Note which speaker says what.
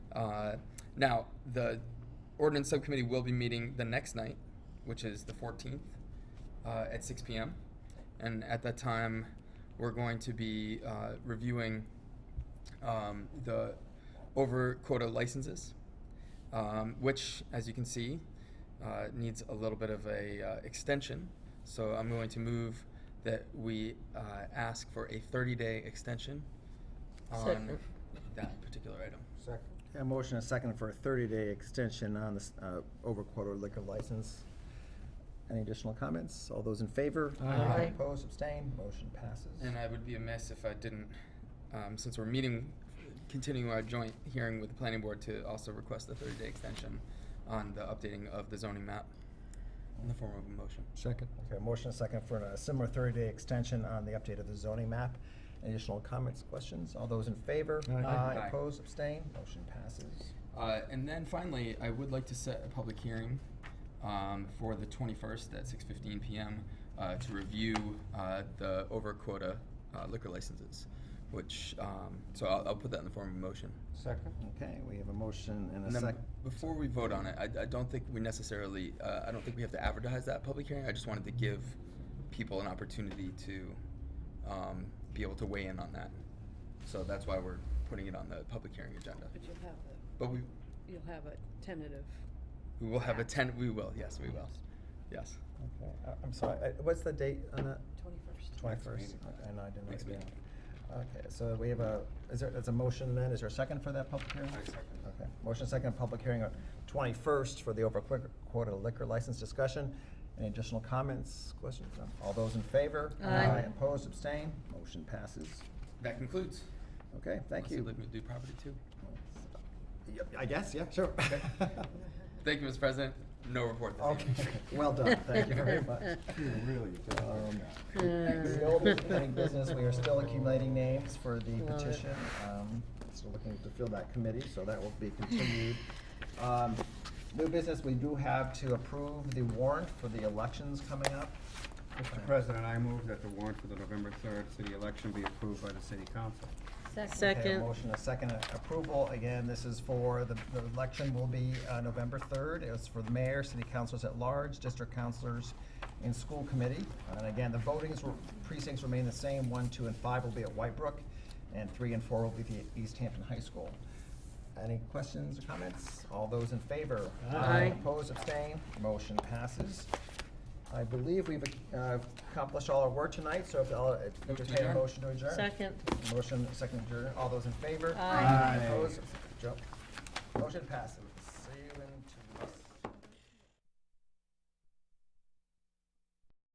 Speaker 1: Uh, Now, the ordinance subcommittee will be meeting the next night, which is the 14th, uh, at 6 PM. And at that time, we're going to be uh, reviewing um, the over quota licenses, um, which, as you can see, uh, needs a little bit of a uh, extension. So I'm going to move that we uh, ask for a 30-day extension on
Speaker 2: Second.
Speaker 1: that particular item.
Speaker 3: Second.
Speaker 2: A motion and a second for a 30-day extension on this uh, over quarter liquor license. Any additional comments? All those in favor?
Speaker 3: Aye. Aye.
Speaker 2: Opposed, abstained, motion passes.
Speaker 1: And I would be amiss if I didn't, um, since we're meeting, continuing our joint hearing with the planning board to also request a thirty-day extension on the updating of the zoning map in the form of a motion.
Speaker 3: Second.
Speaker 2: Okay, a motion and a second for a similar 30-day extension on the update of the zoning map. Any Additional comments, questions? All those in favor?
Speaker 3: Aye.
Speaker 1: Aye.
Speaker 2: Opposed, abstained, motion passes.
Speaker 1: Uh, and then finally, I would like to set a public hearing, um, for the twenty-first at six fifteen PM, uh, to review, uh, the over quota uh, liquor licenses, which, um, so I'll, I'll put that in the form of a motion.
Speaker 3: Second.
Speaker 2: Okay, we have a motion and
Speaker 1: And
Speaker 2: a
Speaker 1: then
Speaker 2: sec,
Speaker 1: before we vote on it, I, I don't think we necessarily, uh, I don't think we have to advertise that public hearing. I just wanted to give people an opportunity to um, be able to weigh in on that. So that's why we're putting it on the public hearing agenda.
Speaker 4: But you'll have a,
Speaker 1: But we,
Speaker 4: you'll have a tentative.
Speaker 1: we will have a ten, we will, yes, we will. Yes.
Speaker 2: okay, I- I'm sorry, I- what's the date on that?
Speaker 4: Twenty-first.
Speaker 2: Twenty-first,
Speaker 3: meeting.
Speaker 2: I know I didn't write
Speaker 1: Next
Speaker 2: it down.
Speaker 1: meeting.
Speaker 2: Okay, so we have a, is there, there's a motion then, is there a second for that public hearing?
Speaker 1: I second.
Speaker 2: Okay, motion second, public hearing on twenty-first for the over quick- quarter liquor license discussion. Any additional comments, questions? No? All those in favor?
Speaker 4: Aye.
Speaker 2: Opposed, abstained, motion passes.
Speaker 1: That concludes.
Speaker 2: Okay, thank
Speaker 1: Unless you'd
Speaker 2: you.
Speaker 1: like me to do property too.
Speaker 2: Yep, I guess, yeah, sure.
Speaker 1: Thank you, Mr. President. No report this
Speaker 2: Okay,
Speaker 1: evening.
Speaker 2: well done, thank you very much.
Speaker 3: You really did a
Speaker 2: Um,
Speaker 3: good job.
Speaker 2: The old planning business, we are still accumulating names for the petition. Um, Still looking to fill that committee, so that will be continued. Um, New business, we do have to approve the warrant for the elections coming up.
Speaker 3: Mr. President, I move that the warrant for the November third city election be approved by the city council.
Speaker 2: Okay, a
Speaker 5: Second.
Speaker 2: motion, a second approval. Again, this is for, the the election will be uh, November 3rd. It's for the mayor, city councilors at large, district councilors, and school committee. And again, the voting is- precincts remain the same. One, two, and five will be at Whitebrook, and three and four will be at the East Hampton High School. Any questions or comments? All those in favor?
Speaker 5: Aye.
Speaker 2: Opposed, abstained, motion passes. I believe we've uh, accomplished all our work tonight, so if I'll
Speaker 1: Move to
Speaker 2: entertain a
Speaker 1: adjourn.
Speaker 2: motion to adjourn.
Speaker 5: Second.
Speaker 2: Motion, second adjourned. All those in favor?
Speaker 5: Aye.
Speaker 2: Opposed? Joe? Motion passes.